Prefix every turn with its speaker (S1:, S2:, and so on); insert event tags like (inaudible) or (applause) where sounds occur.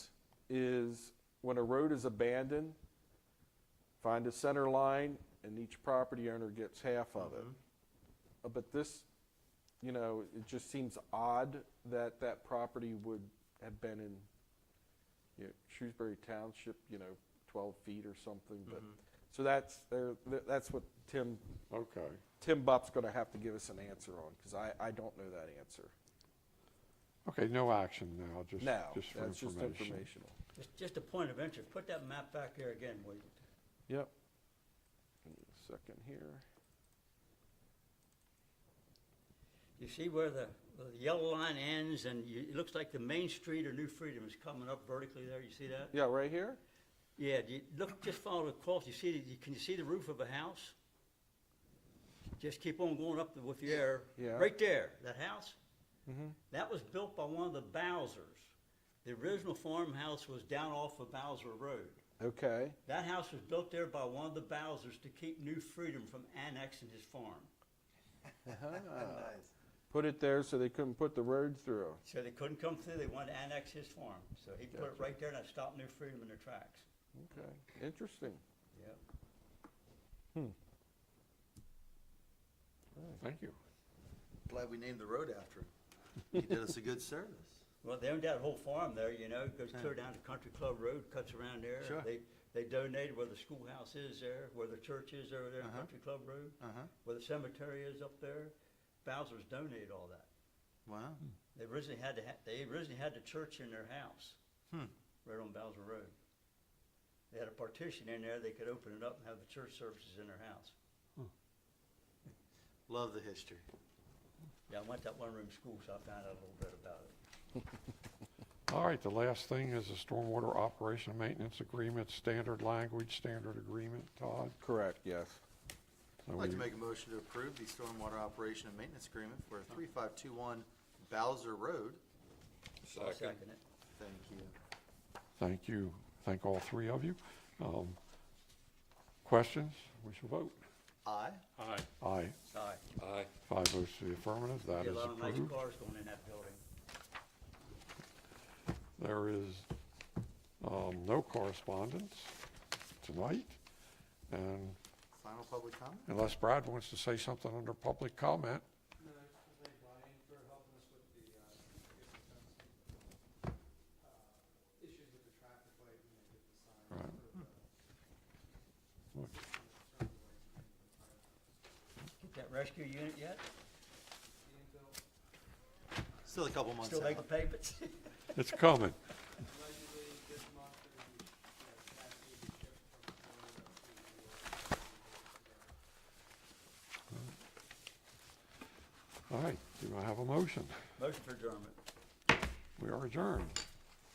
S1: is when a road is abandoned, find a center line and each property owner gets half of it.
S2: Mm-hmm.
S1: Uh, But this, you know, it just seems odd that that property would have been in, you know, Shrewsbury Township, you know, twelve feet or something, but,
S2: Mm-hmm.
S1: so that's, there, th- that's what Tim,
S2: Okay.
S1: Tim Bupp's gonna have to give us an answer on, cause I, I don't know that answer.
S2: Okay, no action now, just,
S1: No,
S2: just for
S1: that's just
S2: information.
S1: informational.
S3: Just, just a point of interest, put that map back there again, will you?
S1: Yep. Give me a Second here.
S3: You see where the, where the yellow line ends and you, it looks like the main street of New Freedom is coming up vertically there, you see that?
S1: Yeah, right here?
S3: Yeah, do you, look, just follow the cross, you see, the- you- can you see the roof of a house? Just keep on going up the- with the air.
S1: Yeah.
S3: Right there, that house? That was built by one of the Bowsers. The original farmhouse was down off of Bowser Road.
S1: Okay,
S3: That house was built there by one of the Bowsers to keep New Freedom from annexing his farm.
S1: put it there so they couldn't put the road through.
S3: So they couldn't come through, they wanted to annex his farm. So he put it right there and it stopped New Freedom in their tracks.
S1: Okay, interesting.
S3: Yep.
S2: Thank you.
S4: Glad we named the road after him. He did us a good service.
S3: Well, they owned that whole farm there, you know, goes clear down to Country Club Road, cuts around there.
S4: Sure.
S3: They, they donated where the schoolhouse is there, where the church is over there, on
S4: Uh-huh.
S3: Country Club Road,
S4: Uh-huh,
S3: where the cemetery is up there. Bowser's donated all that.
S4: wow.
S3: They originally had to, ha- they originally had the church in their house,
S4: Hmm.
S3: right on Bowser Road. They had a partition in there, they could open it up and have the church services in their house.
S4: Love the history.
S3: Yeah, I went to that one-room school, so I found out a little bit about it.
S2: All right, the last thing is the stormwater operation and maintenance agreement, standard language, standard agreement, Todd.
S1: Correct, yes.
S2: So
S4: I'd like to
S2: we-
S4: make a motion to approve the stormwater operation and maintenance agreement for three-five-two-one Bowser Road.
S3: So I'll Second. eh? it.
S4: Thank you.
S2: Thank you, thank all three of you. Um, Questions? We shall vote.
S4: Aye.
S2: Aye,
S3: Sorry.
S2: five votes to the affirmative, that
S3: Be a
S2: is
S3: lot of nice
S2: approved.
S3: cars going in that building.
S2: There is um, no correspondence tonight, and
S4: Final public comment?
S2: unless Brad wants to say something under public comment,
S5: No, I just wanna thank Brian for helping us with the, uh, forgiveness of, uh, issues with the traffic light and they did the sign for
S2: Right.
S5: the.
S2: Look.
S5: turn light and the fire.
S3: Get that rescue unit yet?
S5: Ian Bill,
S4: Still a couple months
S3: Still making
S4: out.
S3: (laughs) payments?
S2: it's coming.
S5: allegedly this month, they're gonna be, uh, cascading shipped from Florida to
S2: All
S5: New York.
S2: right, do I have a motion?
S3: Motion for adjournment.
S2: We are adjourned.